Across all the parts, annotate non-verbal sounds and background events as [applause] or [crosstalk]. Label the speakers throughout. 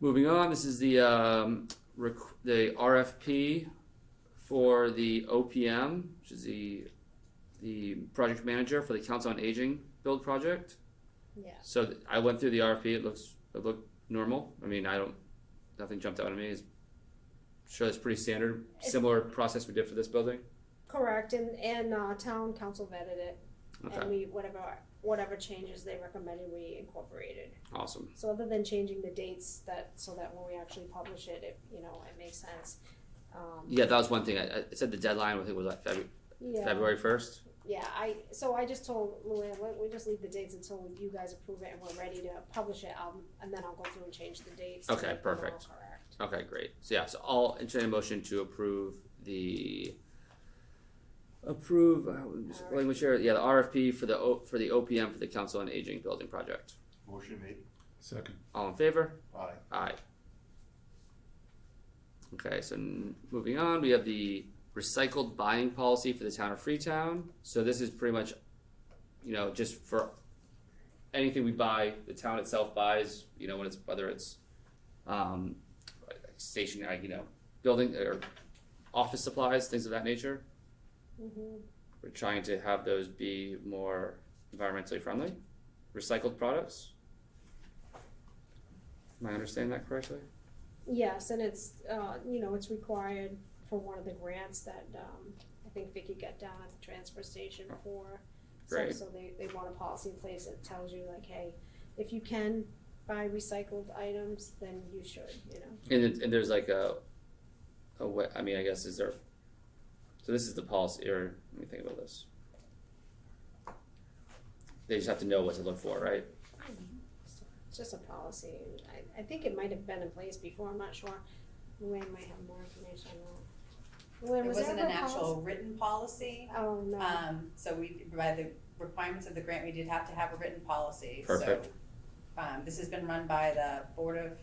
Speaker 1: Moving on, this is the, um, rec- the RFP for the OPM, which is the, the project manager for the Council on Aging build project.
Speaker 2: Yeah.
Speaker 1: So th- I went through the RFP, it looks, it looked normal, I mean, I don't, nothing jumped out at me, it's, sure it's pretty standard,
Speaker 2: It's-
Speaker 1: similar process we did for this building,
Speaker 2: Correct, and, and, uh, town council vetted it, and
Speaker 1: okay,
Speaker 2: we, whatever, whatever changes they recommended, we incorporated.
Speaker 1: awesome,
Speaker 2: So other than changing the dates that, so that when we actually publish it, it, you know, it makes sense. Um,
Speaker 1: yeah, that was one thing, I, I it said the deadline, I think was like February,
Speaker 2: yeah,
Speaker 1: February first,
Speaker 2: yeah, I, so I just told Luann, let, we just leave the dates until you guys approve it and we're ready to publish it, um, and then I'll go through and change the dates. to
Speaker 1: Okay,
Speaker 2: make them all
Speaker 1: perfect.
Speaker 2: Correct.
Speaker 1: Okay, great. So yeah, so I'll entertain a motion to approve the approve uh, language here. Yeah, the RFP for the o, for the OPM for the Council on Aging Building Project.
Speaker 3: Motion made.
Speaker 4: Second.
Speaker 1: All in favor?
Speaker 3: Aye.
Speaker 1: Aye. Okay, so n- moving on, we have the recycled buying policy for the town of Freetown. So this is pretty much, you know, just for anything we buy, the town itself buys, you know, when it's, whether it's, um, like stationary, you know, building or office supplies, things of that nature.
Speaker 2: Mhm.
Speaker 1: We're trying to have those be more environmentally friendly, recycled products. Am I understanding that correctly?
Speaker 2: Yes, and it's, uh, you know, it's required for one of the grants that, um, I think Vicky got down at the transfer station for. So-
Speaker 1: Great.
Speaker 2: So they, they want a policy in place that tells you like, hey, if you can buy recycled items, then you should, you know.
Speaker 1: And, it, and there's like a, a way, I mean, I guess is there, so this is the policy, or let me think about this. They just have to know what to look for, right?
Speaker 2: It's just a policy. I, I think it might have been in place before, I'm not sure. Luann might have more information on that. Luann,
Speaker 5: It
Speaker 2: was there
Speaker 5: wasn't
Speaker 2: ever
Speaker 5: an
Speaker 2: a
Speaker 5: actual
Speaker 2: policy?
Speaker 5: written policy,
Speaker 2: Oh, no.
Speaker 5: um, so we, by the requirements of the grant, we did have to have a written policy, so.
Speaker 1: Perfect.
Speaker 5: Um, this has been run by the Board of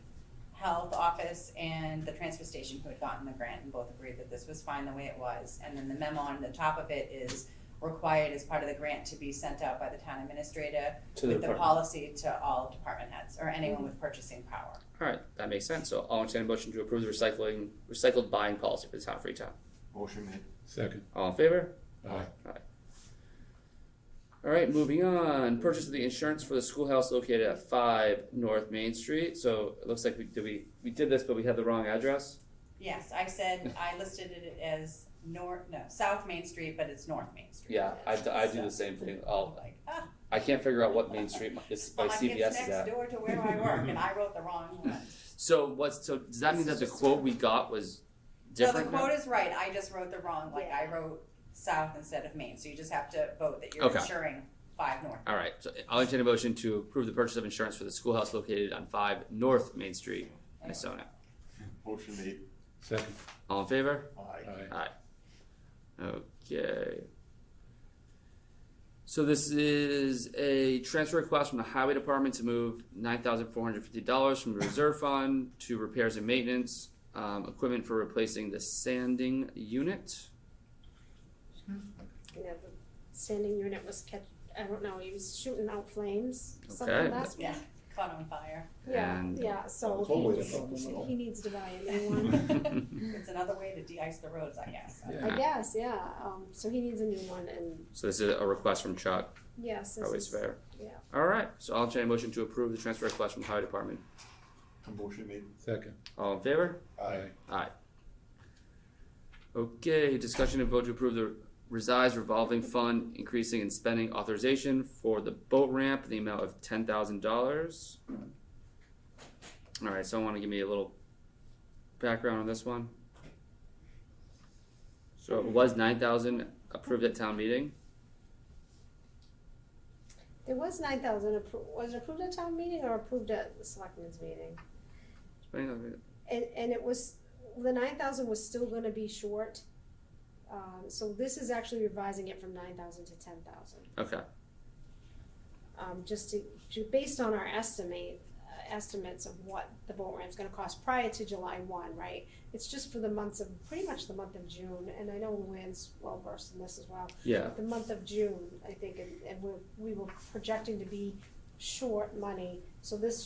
Speaker 5: Health Office and the transfer station who had gotten the grant and both agreed that this was fine the way it was. And then the memo on the top of it is required as part of the grant to be sent out by the town administrator
Speaker 1: To
Speaker 5: with the policy to all department heads or anyone
Speaker 2: Mm-hmm.
Speaker 5: with purchasing power.
Speaker 1: Alright, that makes sense, so I'll entertain a motion to approve the recycling, recycled buying policy for the town of Freetown.
Speaker 3: Motion made.
Speaker 4: Second.
Speaker 1: All in favor?
Speaker 4: Aye.
Speaker 1: Alright, moving on, purchase of the insurance for the schoolhouse located at five North Main Street, so it looks like we, did we, we did this, but we had the wrong address?
Speaker 5: Yes, I said, I listed it as north, no, South Main Street, but it's North Main Street.
Speaker 1: Yeah, I, I do the same thing, I'll,
Speaker 5: Like, ah,
Speaker 1: I can't figure out what Main Street my, this, my
Speaker 5: well,
Speaker 1: CVS
Speaker 5: it's
Speaker 1: is at.
Speaker 5: next door to where I work, and I wrote the wrong
Speaker 1: [laughs]
Speaker 5: one.
Speaker 1: So what's so does that mean that the quote we got was
Speaker 5: So the
Speaker 1: different? now?
Speaker 5: quote is right, I just wrote the wrong, like, I wrote South instead of Main, so you just have to vote that you're
Speaker 1: Okay.
Speaker 5: insuring five North.
Speaker 1: All right. So I'll entertain a motion to approve the purchase of insurance for the schoolhouse located on five North Main Street, Missona.
Speaker 3: Motion made.
Speaker 4: Second.
Speaker 1: All in favor?
Speaker 3: Aye.
Speaker 4: Aye.
Speaker 1: Okay. So this is a transfer request from the highway department to move nine thousand four hundred fifty dollars from the reserve fund to repairs and maintenance, um, equipment for replacing the sanding unit. [laughs]
Speaker 2: Yeah, the standing unit was kept, I don't know, he was shooting out flames,
Speaker 1: Okay.
Speaker 2: something last week.
Speaker 5: Yeah, caught on fire.
Speaker 2: Yeah,
Speaker 1: And-
Speaker 2: yeah, so
Speaker 4: Totally.
Speaker 2: he, he needs to buy a new one.
Speaker 1: [laughs]
Speaker 5: [laughs] It's another way to de-ice the roads, I guess.
Speaker 4: Yeah.
Speaker 2: I guess, yeah, um, so he needs a new one and
Speaker 1: So this is a request from Chuck.
Speaker 2: yes, this
Speaker 1: Always
Speaker 2: is,
Speaker 1: fair.
Speaker 2: yeah.
Speaker 1: All right, so I'll entertain a motion to approve the transfer request from the highway department.
Speaker 3: Motion made.
Speaker 4: Second.
Speaker 1: All in favor?
Speaker 3: Aye.
Speaker 1: Okay, discussion and vote to approve the resides revolving fund increasing and spending authorization for the boat ramp in the amount of ten thousand dollars. All right, so I want to give me a little background on this one. So it was nine thousand approved at town meeting.
Speaker 2: There was nine thousand, was it approved at town meeting or approved at the selectmen's meeting?
Speaker 1: Spending-
Speaker 2: And, and it was, the nine thousand was still gonna be short. Um, so this is actually revising it from nine thousand to ten thousand.
Speaker 1: Okay,
Speaker 2: um, just to, ju- based on our estimate, uh, estimates of what the boat ramp's gonna cost prior to July one, right? It's just for the months of, pretty much the month of June, and I know Luann's well versed in this as well.
Speaker 1: yeah,
Speaker 2: The month of June, I think, and, and we're, we were projecting to be short money, so this